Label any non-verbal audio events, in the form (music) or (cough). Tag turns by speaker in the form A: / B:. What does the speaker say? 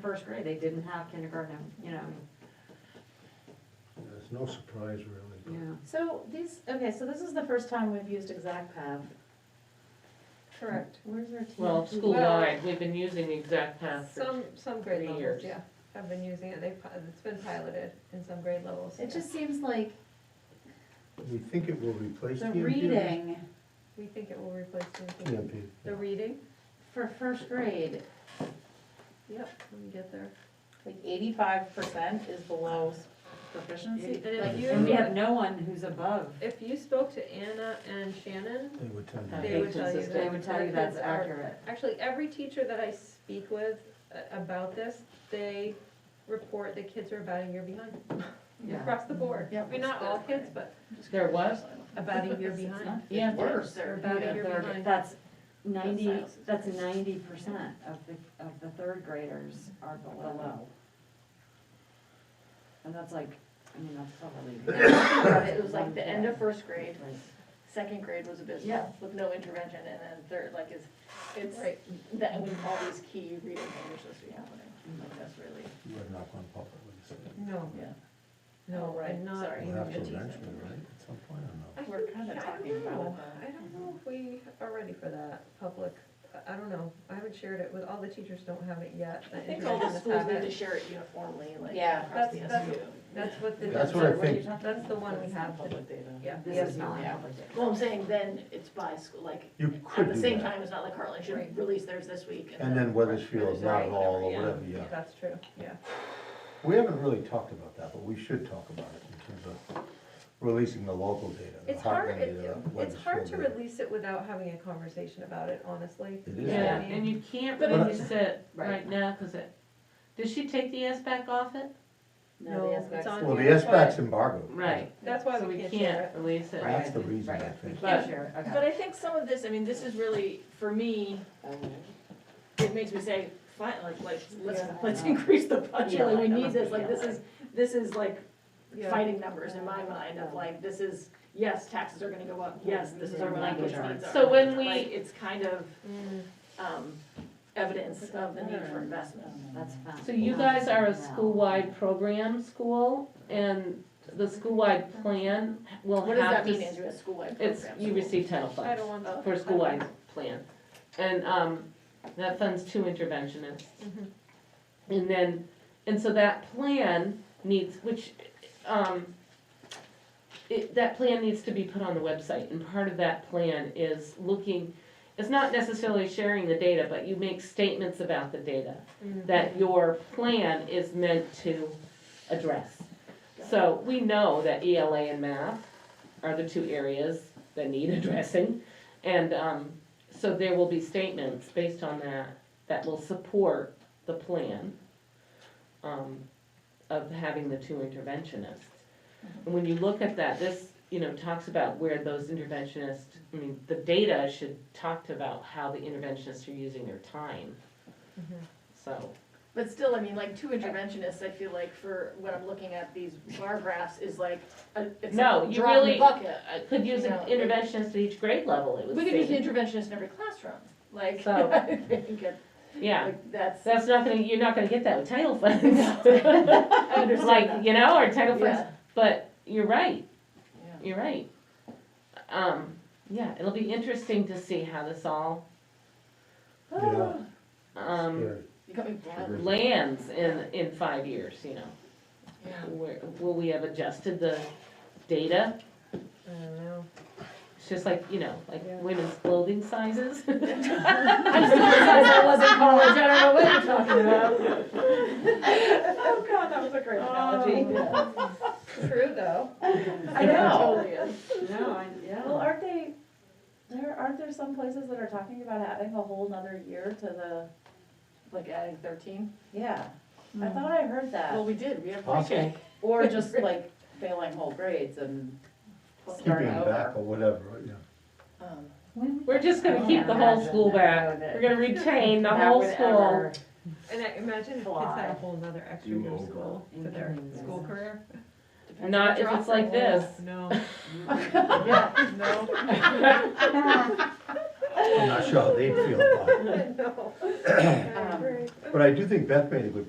A: first grade, they didn't have kindergarten, you know,
B: It's no surprise really.
A: yeah.
C: So these, okay, so this is the first time we've used Exact Path. Correct. Where's our team?
D: Well, school-wide, we've been using the exact path for,
E: Some, some grade
D: Three
E: levels,
D: years.
E: yeah, have been using it, they've, pi- it's been piloted in some grade levels.
C: It
E: yeah.
C: just seems like
B: We think it will replace
C: the
B: the NP.
C: reading
E: We think it will replace the.
B: EMP.
E: The reading?
C: for first grade,
E: Yep, let me get there.
C: like eighty-five percent is below s- proficiency.
E: And if
C: Like,
E: you-
A: And we have no one who's above.
E: If you spoke to Anna and Shannon,
B: They would tend
D: Uh,
B: to.
E: they would tell you that.
D: Inconsistent.
A: They would tell you
E: their
A: that's
E: kids are-
A: accurate.
E: Actually, every teacher that I speak with a- about this, they report that kids are about a year behind,
A: Yeah.
E: across the board.
C: Yep.
E: I mean, not all kids, but
D: there was,
E: about a year
C: (laughs) It's not-
E: behind.
C: it's
D: Yeah.
C: Worse.
E: They're about a year behind.
A: That's ninety,
C: That's not-
A: that's ninety percent of the, of the third graders are below. And that's like, I mean, that's
C: (laughs)
A: probably.
F: (laughs) It was like the end of first grade, second grade was
A: Yeah.
F: abysmal with no intervention, and then third, like it's, it's,
E: Right,
F: that when all these key reading things are supposed to be happening, like that's really,
B: We're not going public with this.
E: no,
F: yeah.
E: no,
F: right,
E: I'm not.
F: sorry.
B: We'll have to
E: even-
B: eventually, right, at some point or
E: I
C: We're
E: think-
C: kinda
E: I don't
C: talking about it,
E: know.
C: though.
E: I don't know if we are ready for that, public, I- I don't know, I haven't shared it with, all the teachers don't have it yet.
F: I think all the
E: Interventions
F: schools
E: have
F: need to
E: it.
F: share it uniformly, like
C: Yeah.
F: across the
E: That's-
F: SU.
E: That's what the.
B: not. That's what I think,
E: That's the one we have, to-
F: Public data.
E: yeah.
A: This is not
F: Yeah.
A: public data.
F: Well, I'm saying then it's by school, like,
B: you
F: at
B: could
F: the
B: do
F: same
B: that.
F: time, it's not like Harlan
E: Right.
F: should release theirs this week.
B: And then Weathersfield, not
F: Right,
B: all, or
F: whatever, yeah.
B: whatever, yeah.
E: That's true, yeah.
B: We haven't really talked about that, but we should talk about it in terms of releasing the local data. the Heartland
E: It's hard, it-
B: data,
E: it's hard to
B: Weathersfield data.
E: release it without having a conversation about it, honestly.
B: It is.
D: yeah, and you can't
F: But
B: it-
D: release it right
A: Right.
D: now, cause it, did she take the S back off it?
E: No,
C: No, the
E: it's on-
C: SBAC.
B: Well, the
E: Yeah,
B: S-BAC's embargoed.
D: Right.
E: That's why
D: So
E: we can't share it.
D: release it.
B: That's the reason, I
A: Right.
B: think.
A: Can't share, okay.
F: But I think some of this, I mean, this is really, for me, it makes me say, fine, like, let's, let's,
A: Yeah.
F: let's increase the budget,
A: Yeah.
F: like, we need this, like, this is, this is like
E: Yeah.
F: fighting numbers in my mind of like, this is, yes, taxes are gonna go up, yes, this is our language needs are.
D: So when we-
F: Like, it's kind of,
E: Mm,
F: um, evidence of the need for investment.
A: That's fine.
D: So you guys are a school-wide program school, and the school-wide plan will have to.
F: What does that mean,
D: s-
F: Andrew, a school-wide
D: It's,
F: program?
D: you receive Title funds.
E: Title one.
F: Oh.
D: for a school-wide plan. And, um, that funds two interventionists.
E: Mhm.
D: And then, and so that plan needs, which, um, it, that plan needs to be put on the website, and part of that plan is looking, it's not necessarily sharing the data, but you make statements about the data
E: mm.
D: that your plan is meant to address. So we know that ELA and math are the two areas that need (laughs) addressing. And um, so there will be statements based on that that will support the plan um, of having the two interventionists. And when you look at that, this, you know, talks about where those interventionists, I mean, the data should talk about how the interventionists are using their time.
E: Mhm.
D: So
F: But still, I mean, like, two interventionists, I feel like for when I'm looking at these bar graphs is like, a- it's
D: No,
F: like a
D: you
F: drop in
D: really-
F: the bucket.
D: I could use an
F: No, it-
D: interventionist at each grade level, it would
F: We could use an
D: seem.
F: interventionist in every classroom, like,
D: So-
F: (laughs) I think it-
D: Yeah,
F: like, that's,
D: that's not gonna, you're not gonna get that with title funds.
E: (laughs)
F: I
D: Like,
F: understand
D: you know, or title
F: that.
D: funds,
F: Yeah,
D: but you're right,
F: yeah.
D: you're right. Um, yeah, it'll be interesting to see how this all,
B: Yeah.
D: um,
B: Scary.
F: You got me blind.
D: lands in, in five years, you know.
F: Yeah.
D: Where, will we have adjusted the data?
E: I don't know.
D: It's just like, you know, like
E: Yeah.
D: women's clothing sizes. (laughs)
F: I just realized I was in college, I don't know what you're talking about. (laughs) Oh, God, that was a great analogy.
E: True, though.
F: I know. It Oh. (laughs) totally
A: (laughs)
F: is.
A: No, I,
C: Well,
A: yeah.
C: aren't they, there, aren't there some places that are talking about adding a whole nother year to the,
F: Like adding thirteen?
C: yeah, I thought I heard that.
F: Hmm. Well, we did, we have.
B: Possible.
C: Or just like failing whole grades and
B: Keeping
C: starting
B: it back
C: over.
B: or whatever, yeah.
F: Um,
D: We're just gonna keep the whole school back, we're
E: (laughs)
D: gonna retain the
C: That
D: whole
C: would
D: school.
C: ever-
E: And I imagine if kids
C: Fly.
E: had a whole nother extra
B: You
E: year of
B: will.
E: school to their school career.
F: depends
D: Not
F: what you're
D: if it's
F: offering.
D: like this.
E: No,
D: (laughs)
E: (laughs)
F: No.
B: I'm not sure how they'd feel about it.
E: (laughs) no.
C: Um,
B: (coughs) But I do think Beth made a good